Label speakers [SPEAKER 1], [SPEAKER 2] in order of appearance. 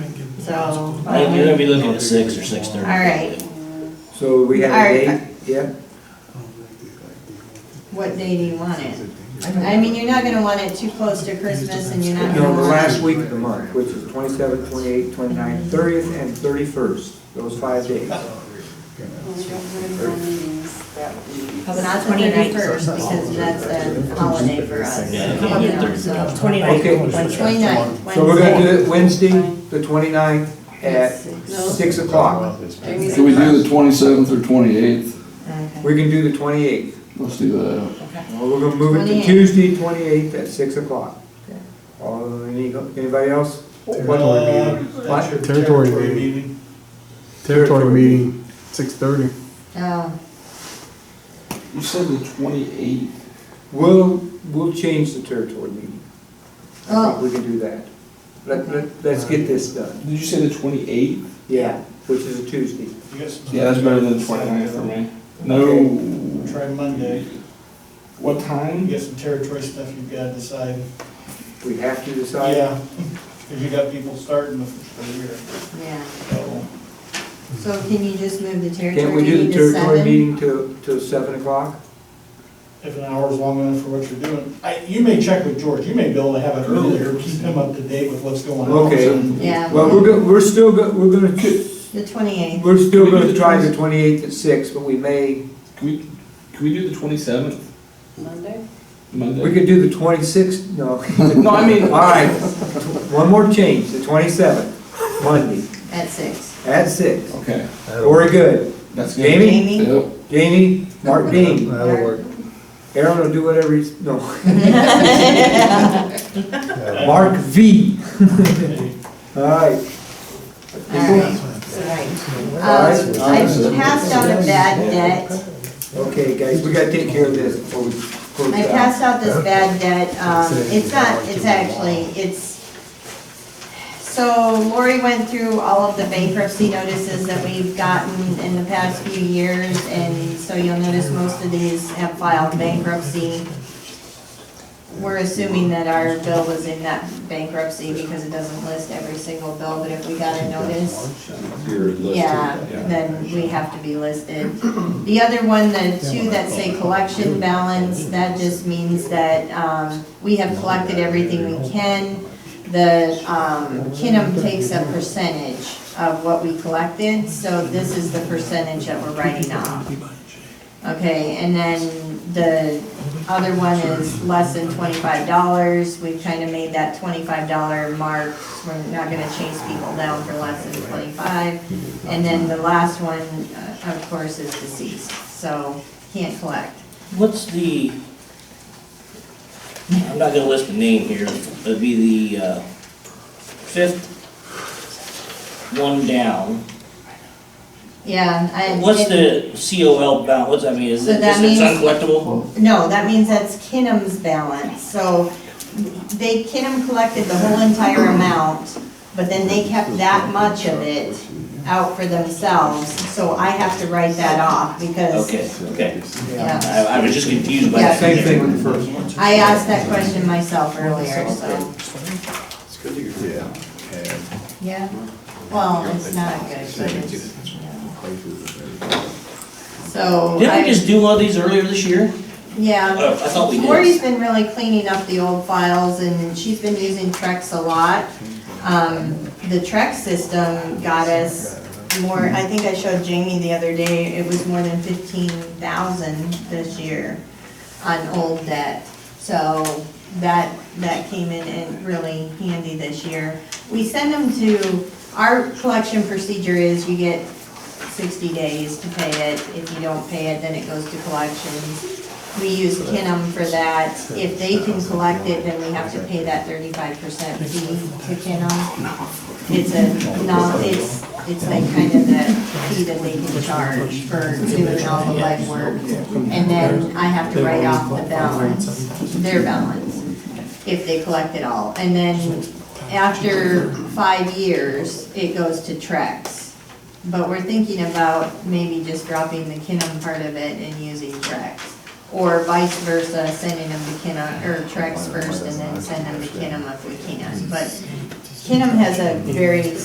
[SPEAKER 1] so.
[SPEAKER 2] You're gonna be looking at six or six thirty.
[SPEAKER 1] All right.
[SPEAKER 3] So we have
[SPEAKER 1] Alright.
[SPEAKER 3] a date, yeah?
[SPEAKER 1] What day do you want it? I mean, you're not gonna want it too close to Christmas and you're not gonna
[SPEAKER 3] No, the
[SPEAKER 1] want
[SPEAKER 3] last
[SPEAKER 1] it.
[SPEAKER 3] week of the month, which is 27th, 28th, 29th, 30th, and 31st, those five days.
[SPEAKER 4] Well, we don't have any more meetings that week.
[SPEAKER 1] Not the 31st, because that's a holiday for us.
[SPEAKER 2] Yeah, I can't do thirty.
[SPEAKER 1] So,
[SPEAKER 3] Okay.
[SPEAKER 1] 29th,
[SPEAKER 3] So we're gonna do
[SPEAKER 1] Wednesday.
[SPEAKER 3] it Wednesday, the 29th, at
[SPEAKER 4] No.
[SPEAKER 3] 6 o'clock.
[SPEAKER 4] Jamie's
[SPEAKER 5] Can we
[SPEAKER 4] in
[SPEAKER 5] do the twenty-seventh or twenty-eighth?
[SPEAKER 1] Okay.
[SPEAKER 3] We can do the 28th.
[SPEAKER 5] Let's do that.
[SPEAKER 3] Well, we're gonna move it to
[SPEAKER 1] 28th.
[SPEAKER 3] Tuesday, 28th, at 6 o'clock. Uh, any- Anybody else? Uh, What?
[SPEAKER 6] Territory meeting. Territory meeting, six thirty.
[SPEAKER 1] Oh,
[SPEAKER 5] You said the twenty-eighth.
[SPEAKER 3] We'll, we'll change the territory meeting. I think
[SPEAKER 1] Oh.
[SPEAKER 3] we can do that. Let, let, let's get this done.
[SPEAKER 5] Did you say the twenty-eighth?
[SPEAKER 3] Yeah, which is a Tuesday.
[SPEAKER 5] Yeah, that's better than the 29th for me. No.
[SPEAKER 7] Try Monday,
[SPEAKER 5] What
[SPEAKER 7] you
[SPEAKER 5] time?
[SPEAKER 7] got some territory stuff you've gotta decide.
[SPEAKER 3] We have to decide.
[SPEAKER 7] Yeah, because you got people starting the first year,
[SPEAKER 1] yeah.
[SPEAKER 7] so.
[SPEAKER 1] So can you just move the
[SPEAKER 3] Can't
[SPEAKER 1] territory
[SPEAKER 3] we do
[SPEAKER 1] meeting
[SPEAKER 3] the
[SPEAKER 1] to
[SPEAKER 3] territory
[SPEAKER 1] seven?
[SPEAKER 3] meeting till, till seven o'clock?
[SPEAKER 7] If an hour's long enough for what you're doing, I, you may check with George, you may be able to have it earlier, keep him up to date with what's going on.
[SPEAKER 3] Okay.
[SPEAKER 1] Yeah.
[SPEAKER 3] Well, we're go, we're still, go- we're gonna,
[SPEAKER 1] The twenty-eighth.
[SPEAKER 3] we're still gonna try the twenty-eighth at six, but we may,
[SPEAKER 5] Can we, can we do the twenty-seventh
[SPEAKER 4] Monday?
[SPEAKER 3] we
[SPEAKER 5] Monday?
[SPEAKER 3] could do the twenty-sixth, no.
[SPEAKER 5] No, I mean,
[SPEAKER 3] All right, one more change, the twenty-seventh, Monday,
[SPEAKER 1] At six.
[SPEAKER 3] at six.
[SPEAKER 5] Okay,
[SPEAKER 3] We're good.
[SPEAKER 5] that's good.
[SPEAKER 3] Jamie?
[SPEAKER 1] Jamie?
[SPEAKER 5] Yep.
[SPEAKER 3] Jamie, Mark Dean,
[SPEAKER 6] That'll work.
[SPEAKER 3] Aaron will do whatever he's, no. Mark V. All right,
[SPEAKER 1] All right. Um, I passed out a bad debt.
[SPEAKER 3] okay, guys, we gotta take care of this before we close
[SPEAKER 1] I
[SPEAKER 3] out.
[SPEAKER 1] passed out this bad debt, um, it's not, it's actually, it's, so Lori went through all of the bankruptcy notices that we've gotten in the past few years, and so you'll notice most of these have filed bankruptcy. We're assuming that our bill was in that bankruptcy because it doesn't list every single bill, but if we got a notice, yeah, then we have to be listed. The other one, the two that say collection balance, that just means that, um, we have collected everything we can. The, um, Kinnam takes a percentage of what we collected, so this is the percentage that we're writing off. Okay, and then the other one is less than twenty-five dollars, we've kind of made that twenty-five dollar mark, we're not gonna chase people down for less than twenty-five. And then the last one, uh, of course, is deceased, so can't collect.
[SPEAKER 2] What's the, I'm not gonna list the name here, it'd be the, uh, fifth one down.
[SPEAKER 1] Yeah, I.
[SPEAKER 2] What's the COL balance, what's that mean, is
[SPEAKER 1] So
[SPEAKER 2] it,
[SPEAKER 1] that
[SPEAKER 2] is it
[SPEAKER 1] means-
[SPEAKER 2] uncollectible?
[SPEAKER 1] No, that means that's Kinnam's balance, so they, Kinnam collected the whole entire amount, but then they kept that much of it out for themselves, so I have to write that off, because,
[SPEAKER 2] Okay, okay,
[SPEAKER 1] yeah.
[SPEAKER 2] I, I was just confused by
[SPEAKER 1] Yeah.
[SPEAKER 2] that.
[SPEAKER 3] Same thing with the first one.
[SPEAKER 1] I asked that question myself earlier, so,
[SPEAKER 8] Yeah. and
[SPEAKER 1] yeah, well, it's not good, but it's, yeah.
[SPEAKER 8] places and everything.
[SPEAKER 1] so.
[SPEAKER 2] Didn't
[SPEAKER 1] I-
[SPEAKER 2] we just do one of these earlier this year?
[SPEAKER 1] Yeah.
[SPEAKER 2] Oh, I thought we did.
[SPEAKER 1] Lori's been really cleaning up the old files and she's been using Trex a lot. Um, the Trex system got us more, I think I showed Jamie the other day, it was more than fifteen thousand this year on old debt. So that, that came in and really handy this year. We send them to, our collection procedure is you get sixty days to pay it. If you don't pay it, then it goes to collections. We use Kinnam for that. If they can collect it, then we have to pay that thirty-five percent fee to Kinnam. It's a, no, it's, it's like kind of the fee that they can charge for doing all the legwork. And then I have to write off the balance, their balance, if they collect it all. And then after five years, it goes to Trex. But we're thinking about maybe just dropping the Kinnam part of it and using Trex. Or vice versa, sending them to Kinnam, or Trex first and then send them to Kinnam if we can. But Kinnam has a very